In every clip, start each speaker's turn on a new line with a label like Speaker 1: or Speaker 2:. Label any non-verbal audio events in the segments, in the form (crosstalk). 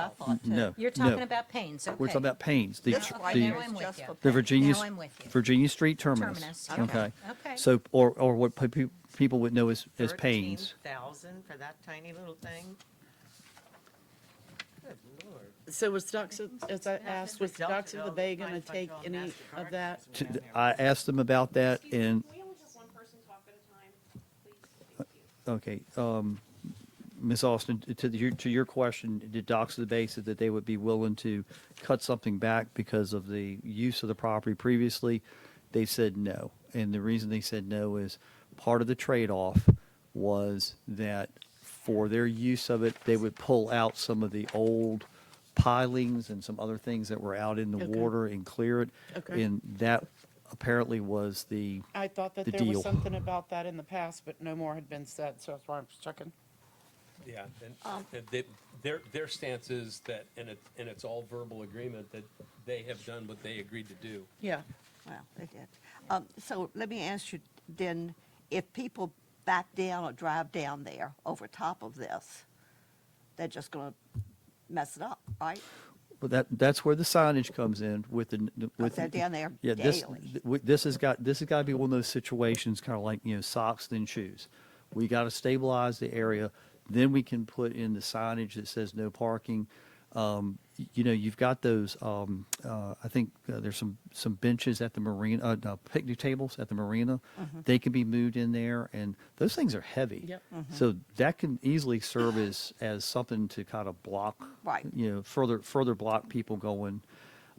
Speaker 1: I thought too.
Speaker 2: Mm-hmm. No,
Speaker 1: You're
Speaker 2: no.
Speaker 1: talking about Paines, okay.
Speaker 2: We're talking about Paynes, the,
Speaker 1: That's
Speaker 2: tr-
Speaker 1: right, now I'm
Speaker 2: the,
Speaker 1: with
Speaker 3: Just
Speaker 1: you.
Speaker 3: for
Speaker 2: the
Speaker 3: Now
Speaker 2: Virginia,
Speaker 1: I'm with you.
Speaker 2: Virginia Street terminus.
Speaker 1: Terminus, okay, okay.
Speaker 2: So, or, or what pe- pe- people would know as, as Paynes.
Speaker 3: 13,000 for that tiny little thing? Good lord.
Speaker 4: So was Ducks, of- as I asked, was Ducks of the Bay going to
Speaker 3: Might if I
Speaker 4: take
Speaker 3: draw a
Speaker 4: any
Speaker 3: MasterCard
Speaker 4: of that?
Speaker 3: or
Speaker 2: T-
Speaker 3: something down there.
Speaker 2: I asked them about that
Speaker 5: Excuse me,
Speaker 2: and,
Speaker 5: Can we only have one person talk at a time, please? Thank you.
Speaker 2: okay, um, Ms. Austin, to the, your- to your question, did Docs of the Bay said that they would be willing to cut something back because of the use of the property previously? They said no. And the reason they said no is part of the trade-off was that for their use of it, they would pull out some of the old pilings and some other things that were out in the
Speaker 4: Okay.
Speaker 2: water and clear it.
Speaker 4: Okay.
Speaker 2: And that apparently was the,
Speaker 4: I thought that
Speaker 2: The
Speaker 4: there
Speaker 2: deal.
Speaker 4: was something about that in the past, but no more had been said, so that's why I'm checking.
Speaker 6: Yeah, and,
Speaker 7: Um,
Speaker 6: and they, their, their stance is that, and it, and it's all verbal agreement, that they have done what they agreed to do.
Speaker 4: Yeah.
Speaker 7: Well, they did. Um, so let me ask you then, if people back down or drive down there over top of this, they're just gonna mess it up, right?
Speaker 2: But that, that's where the signage comes in with the, with.
Speaker 7: they're down there
Speaker 2: Yeah, this,
Speaker 7: daily.
Speaker 2: th- we- this has got, this has got to be one of those situations, kind of like, you know, socks then shoes. We got to stabilize the area, then we can put in the signage that says no parking. Um, y- You know, you've got those, um, uh, I think uh, there's some, some benches at the marina, uh, no, picnic tables at the marina.
Speaker 7: Mm-hmm.
Speaker 2: They can be moved in there and those things are heavy.
Speaker 4: Yep.
Speaker 2: So
Speaker 7: Mm-hmm.
Speaker 2: that can easily serve as, as something to kind of block.
Speaker 7: Right.
Speaker 2: You know, further, further block people going.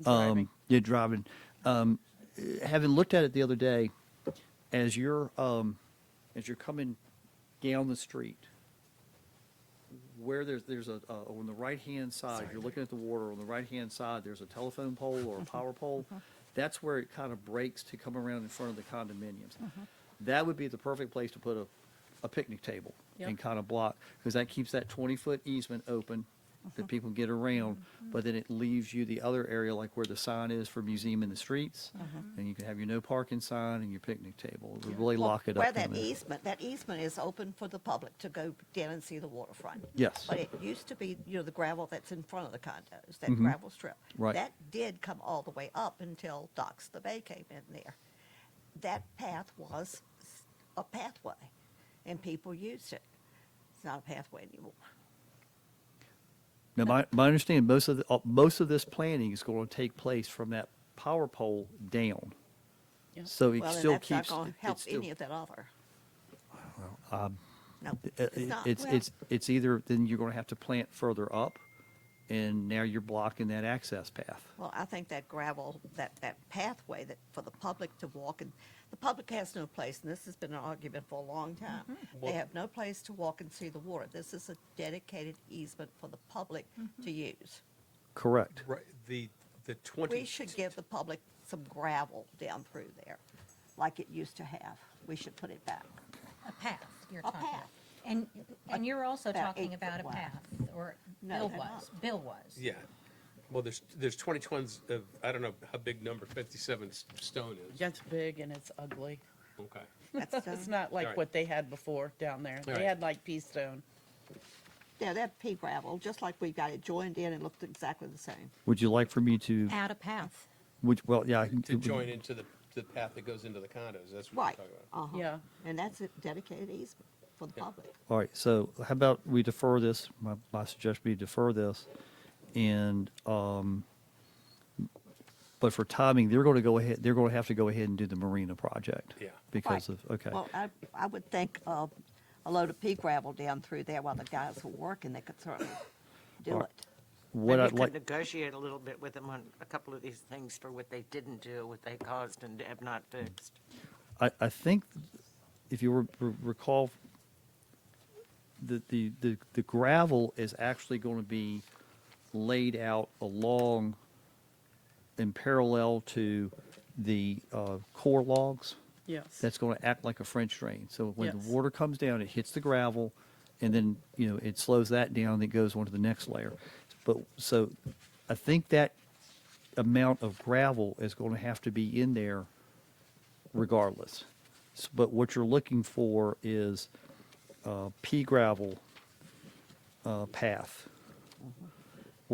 Speaker 4: Driving.
Speaker 2: Um, yeah, driving. Um, eh, having looked at it the other day, as you're um, as you're coming down the street, where there's there's a uh, on the right hand side, you're looking at the water. On the right hand side, there's a telephone pole or a power pole. That's where it kind of breaks to come around in front of the condominiums. That would be the perfect place to put a, a picnic table and
Speaker 4: Yep.
Speaker 2: kind of block because that keeps that 20 foot easement open that people get around, but then it leaves you the other area like where the sign is for museum in the streets, and you can have your no parking sign and your picnic table. It would really
Speaker 7: Well,
Speaker 2: lock it
Speaker 7: Where
Speaker 2: up. down
Speaker 7: that
Speaker 2: there.
Speaker 7: easement, that easement is open for the public to go down and see the waterfront.
Speaker 2: Yes.
Speaker 7: But it used to be, you know, the gravel that's in front of the condos, that gravel strip.
Speaker 2: Mm-hmm. Right.
Speaker 7: That did come all the way up until Doc's the Bay came in there. That path was s- a pathway, and people used it. It's not a pathway anymore.
Speaker 2: Now, my, my understanding, most of the, uh, most of this planning is going to take place from that power pole down.
Speaker 4: Yeah.
Speaker 2: So it
Speaker 7: Well, and
Speaker 2: still
Speaker 7: that's not
Speaker 2: keeps.
Speaker 7: going
Speaker 2: it-
Speaker 7: to help
Speaker 2: it's still-
Speaker 7: any of that other. No,
Speaker 2: uh,
Speaker 7: it's not.
Speaker 2: It's,
Speaker 7: Well-
Speaker 2: it's, it's either, then you're going to have to plant further up, and now you're blocking that access path.
Speaker 7: Well, I think that gravel, that, that pathway that, for the public to walk, and the public has no place, and this has been an argument for a long time.
Speaker 1: Mm-hmm.
Speaker 7: They
Speaker 6: Well-
Speaker 7: have no place to walk and see the water. This is a dedicated easement for the public
Speaker 1: Mm-hmm.
Speaker 7: to use.
Speaker 2: Correct.
Speaker 6: Right, the, the twenty.
Speaker 7: We should give the public some gravel down through there, like it used to have. We should put it back.
Speaker 1: A path, you're
Speaker 7: A
Speaker 1: talking about.
Speaker 7: path.
Speaker 1: And, and you're also
Speaker 7: About
Speaker 1: talking
Speaker 7: eight
Speaker 1: about a
Speaker 7: foot wide.
Speaker 1: path, or
Speaker 7: No,
Speaker 1: Bill
Speaker 7: they're
Speaker 1: was,
Speaker 7: not.
Speaker 1: Bill was.
Speaker 6: Yeah, well, there's, there's twenty tons of, I don't know how big number fifty-seven s- stone is.
Speaker 4: That's big and it's ugly.
Speaker 6: Okay,
Speaker 4: (laughs)
Speaker 7: That's
Speaker 4: It's
Speaker 7: done.
Speaker 4: not like
Speaker 6: Alright.
Speaker 4: what they had before down there. They
Speaker 6: Alright.
Speaker 4: had like pea stone.
Speaker 7: Yeah, that pea gravel, just like we got it joined in and looked exactly the same.
Speaker 2: Would you like for me to,
Speaker 1: Add a path.
Speaker 2: would, well, yeah. I can-
Speaker 6: to join into the, the path that goes into the condos, that's what
Speaker 7: Right.
Speaker 6: we're talking about.
Speaker 7: Uh-huh.
Speaker 4: Yeah.
Speaker 7: And that's a dedicated easement for the public.
Speaker 2: All right, so how about we defer this? My, my suggestion would be defer this. And, um, but for timing, they're going to go ahead, they're going to have to go ahead and do the marina project.
Speaker 6: Yeah.
Speaker 2: Because
Speaker 7: Right.
Speaker 2: of, okay.
Speaker 7: Well, I, I would think uh, a load of pea gravel down through there while the guys were working, they could certainly do
Speaker 2: Right.
Speaker 7: it.
Speaker 2: What
Speaker 8: Maybe
Speaker 2: I'd
Speaker 8: could
Speaker 2: like,
Speaker 8: Negotiate a little bit with them on a couple of these things for what they didn't do, what they caused and have not fixed.
Speaker 2: I, I think if you re- re- recall, the, the, the, the gravel is actually going to be laid out along in parallel to the, uh, core logs.
Speaker 4: Yes.
Speaker 2: that's going to act like a French drain. So when
Speaker 4: Yes.
Speaker 2: the water comes down, it hits the gravel, and then you know it slows that down. And it goes on to the next layer. But so, I think that amount of gravel is going to have to be in there, regardless. S- But what you're looking for is uh, pea gravel uh, path